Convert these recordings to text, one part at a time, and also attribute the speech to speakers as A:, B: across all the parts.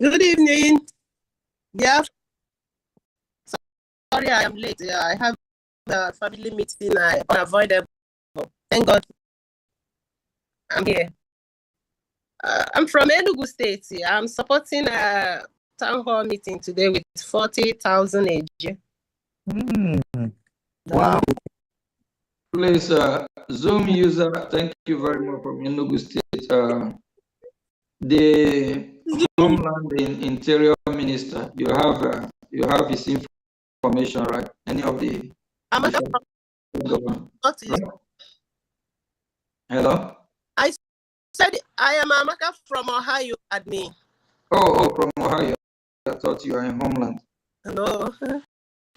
A: Good evening. Yeah. Sorry, I am late. Yeah, I have a family meeting. I unavoidable. Thank God. I'm here. Uh, I'm from Enugu State. Yeah, I'm supporting a town hall meeting today with 40,000 AG.
B: Wow.
C: Please, uh, Zoom user, thank you very much from Enugu State. Uh, the Homeland and Interior Minister, you have, uh, you have his information, right? Any of the
A: I'm not from
C: government?
A: North East.
C: Hello?
A: said I am Amaka from Ohio, admin.
C: Oh, oh, from Ohio. I thought you were in Homeland.
A: Hello.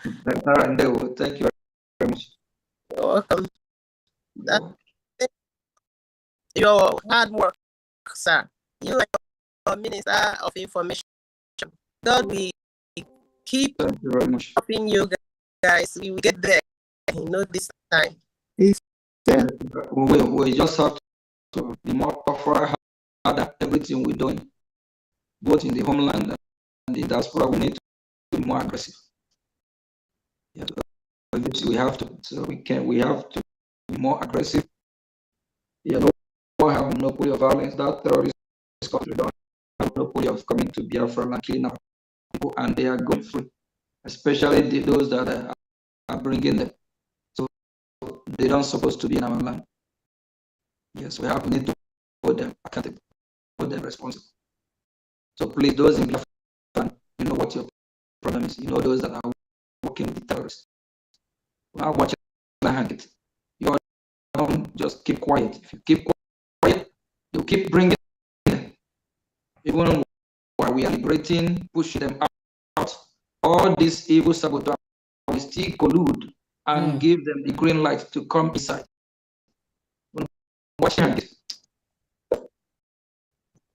C: Narandewo, Thank you very much.
A: You're welcome. That- Your hard work, sir. You are your minister of information. God, we keep
C: Thank you very much.
A: helping you guys. We will get there. You know this time.
C: We, will- we just have to be more tougher, harder, everything we're doing, both in the homeland and the diaspora, we need to be more aggressive. Yeah, and this we have to, so we can, we have to be more aggressive. Yeah, no, we have monopoly of violence, that terrorist country don't have monopoly of coming to Biafra and killing our people, and they are going free, especially the- those that are- are bringing them they don't supposed to be in our land. Yes, we have need to hold them accountable, hold them responsible. So please, those in Biafra, you know what your problem is. You know those that are working with terrorists. We are watching the hand. You all don't just keep quiet. If you keep quiet, you keep bringing them. Even while we are liberating, push them out. All these evil saboteurs will still collude and give them the green light to come inside. Watch hand.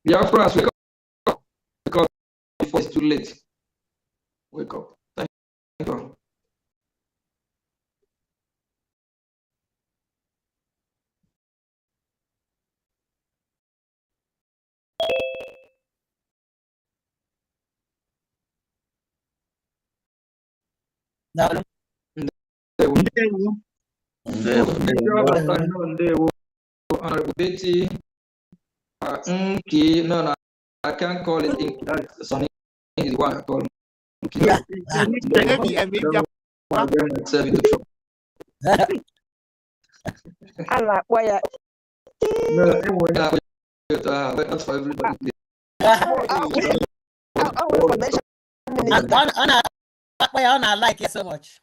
C: Biafra wake up. Wake up before it's too late. Wake up. Thank you. They will- Honorable Betty, uh, Nki, no, no, I can't call it Nki, that's Sonny is the one I call Nki.
B: Yeah.
C: Don't want to get myself into trouble. No, don't worry, I will do it, uh, but that's for everybody.
D: I don't like it so much.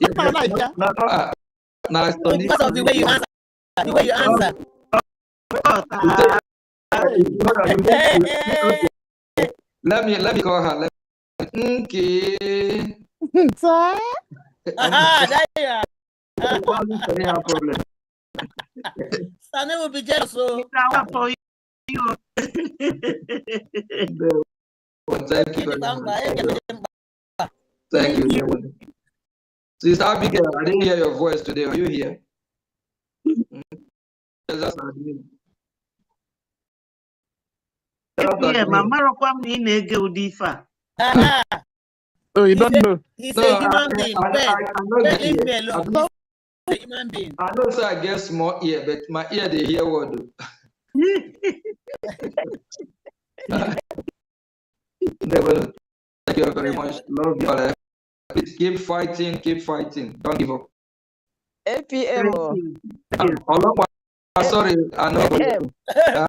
C: Yeah,
B: my life, yeah.
C: no, no, uh, now Sonny-
D: Because of the way you answer. The way you
C: Um,
D: answer.
C: You take- you know that you need to- okay. Let me, let me call her, let me, Nki.
D: Ah, there you are.
C: Sonny have problem.
D: Sonny will be jealous. So
C: Well, Thank you
D: give
C: very
D: it back.
C: much.
D: eh, give it back.
C: Thank you. very much. Sister Abigail, I didn't hear your voice today. Are you here? Mm. Yes, that's our dream. That's our
E: Yeah,
C: dream.
E: ma marakwa m na ị na-ege ụdị ife a
D: Ah, ah,
B: Oh, you don't know.
D: He's
C: No,
D: a
C: I-
D: human
C: I-
D: being.
C: I- I-
D: Ben,
C: I know
D: Ben,
C: that
D: leave me
C: ear.
D: alone.
C: I-
D: He's a human being.
C: I know, sir, I get small ear, but my ear, they hear what. do. They will. Thank you very much. Love you all. Please keep fighting, keep fighting. Don't give up.
F: APM o.
C: Um, Olokwa, Sorry, I know.
F: APM.
C: Uh,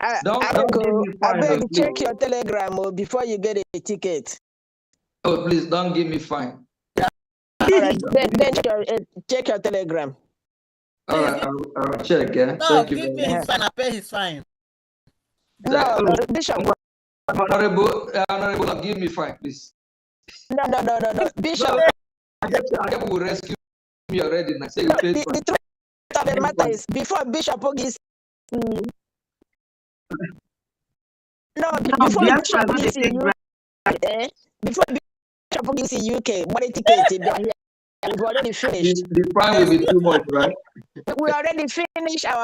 F: I-
C: don't-
F: I
C: don't
F: go-
C: give me fine,
F: abeg
C: no, please.
F: check your telegram o before you get a ticket.
C: Oh, please, don't give me fine.
F: Alright, then then check your, eh, check your telegram.
C: All right, I'll, I'll check, yeah.
D: No,
C: Thank you
D: give
C: very
D: me
C: much.
D: his fine. I pay his fine.
F: No, no, Bishop,
C: Honorable, uh, honorable, give me five, please.
F: no, no, no, no, no, Bishop.
C: I get, I get will rescue me already, and I say you
F: no,
C: paid
F: The,
C: for
F: the truth of the matter is before Bishop Ogis. mm. No, be-
E: No,
F: before
E: Biafra
F: Bishop
E: no dey
F: Ogis
E: take
F: in UK, eh, before Bishop Ogis in UK, money ticket, eh, they are here. we've already finished.
C: The the fine will be too much, right?
F: We already finished our